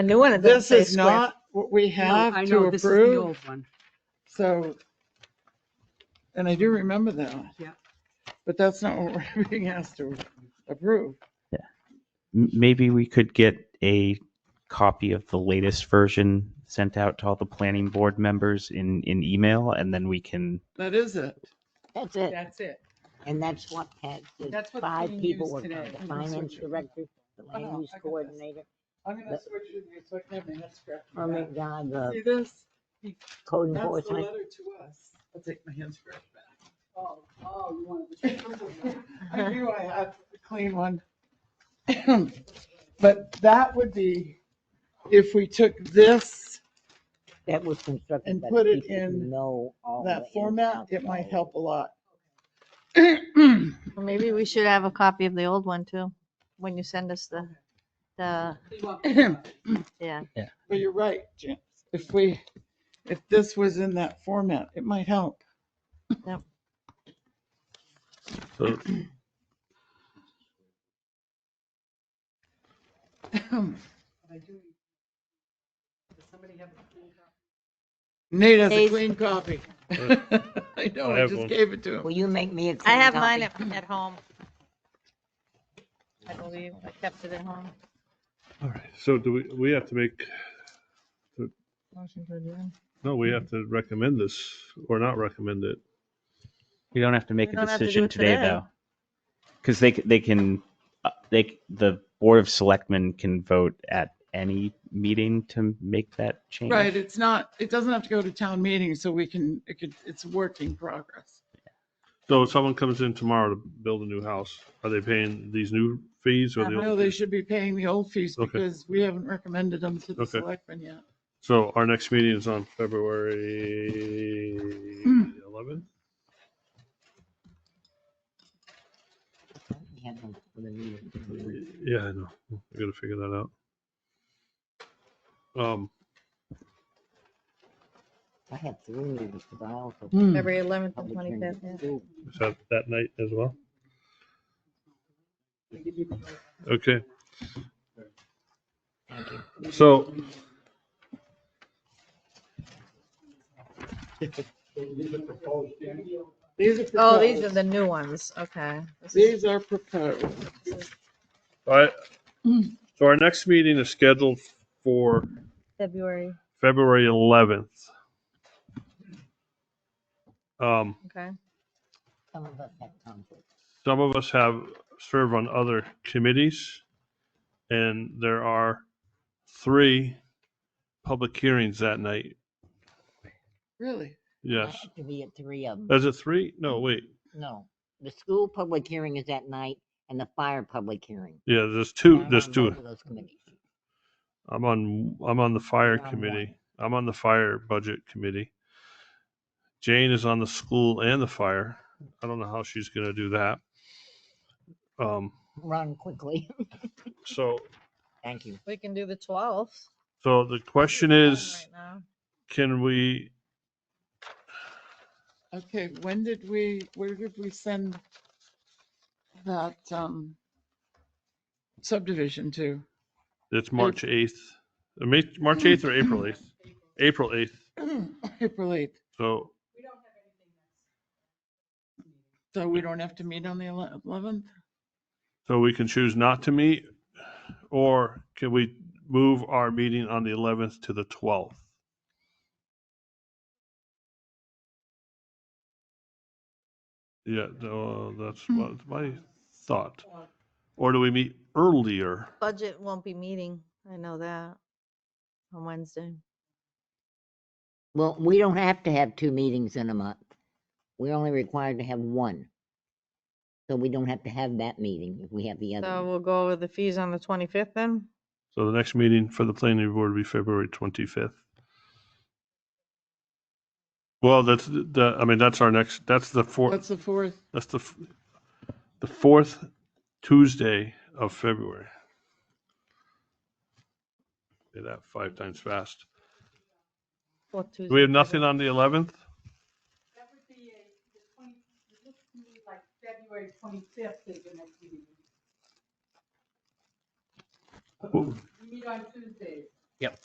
A new one. it doesn't This say is square. not what we No, I have to know, this is the approve, old one. so. And I do remember that. Yeah. But that's not what we're being asked to approve. M- maybe we could get a copy of the latest version sent out to all the planning board members in, in email, and then we can, That is it. That's it. That's it. And that's what had, the That's what's five being people used were today. the I'm gonna finance switch it. director, the Oh, no, land use I got this. coordinator, I'm gonna But- switch it, here so I can have my head scratched. oh my God, the See this? code That's the enforcement. letter to us. I'll take my hand scratch back. Oh, oh, you wanted the I knew I had a clean one. But that would be, if we took this, That was constructed. And by put it people who in Know all. the ins that and format, outs it of might it. help a lot. Well, Maybe we should have a copy of the old one too, when you send us the, the, yeah. But you're right, Jim. If we, if this was in that format, it might help. so Nate has a Hey. clean copy. I know, I I have just one. gave it to him. Will you make me a clean I copy? have mine at, at home. I believe I kept it at home. All right, so do we, we have to make, no, we have to recommend this or not recommend it. we don't have to make We a don't have to do decision it today, today. though. Because they, c- they can, uh, they, c- the Board of Selectmen can vote at any meeting to make that change. Right, it's not, it doesn't have to go to town meeting, so we can, it could, it's a work in progress. So if someone comes in tomorrow to build a new house, are they paying these new fees or the No, old? they fees? should be paying the old fees Okay. because we haven't recommended them to the Okay. selectmen yet. So our next meeting is on February eleventh? We have them for the meeting. Yeah, I know. I gotta figure that out. Um, I have three meetings, but I also. Hmm. February eleventh and public twenty-fifth, hearing. yeah. Ooh, is that that night as well? Okay. So These are. Oh, these are proposed. the new ones, okay. This is- These are proposed. All right. So our next meeting is scheduled for February, February 11th. Um, okay. Some of us have conflicts. some of us have served on other committees, and there are three public hearings that night. Really? I Yes. Uh, have to be at three of them. Is it three? No, wait. No, the school public hearing is at night and the fire public hearing. Yeah, there's two. I'm There's on two. both of Those committees. I'm on. I'm on the fire I'm on committee. I'm on the fire budget committee. Jane is on the school and the fire. I don't know how she's going to do that. Um. Run quickly. So, Thank you. We can do the twelfth. so the question is, can we? Okay, when did we, where did we send that um subdivision to? It's March eighth, March eighth or April eighth, April eighth. April 8th. So, So we don't have to meet on the ele- 11th? so we can choose not to meet, or can we move our meeting on the eleventh to the twelfth? Yeah, no, that's my, my thought. Or do we meet earlier? Budget won't be meeting, I know that, on Wednesday. Well, we don't have to have two meetings in a month. We're only required to have one. So we don't have to have that meeting if we have the So other. one. we'll go with the fees on the twenty-fifth then? So the next meeting for the planning board will be February twenty-fifth. Well, that's the, I mean, that's our next, that's the What's fourth, the 4th? that's the, f- the fourth Tuesday of February. Say that five times fast. Fourth Do Tuesday. We have nothing on the eleventh? That would be a, the twenty, it looks to me like February twenty-fifth is the next meeting. Well- We meet on Tuesdays.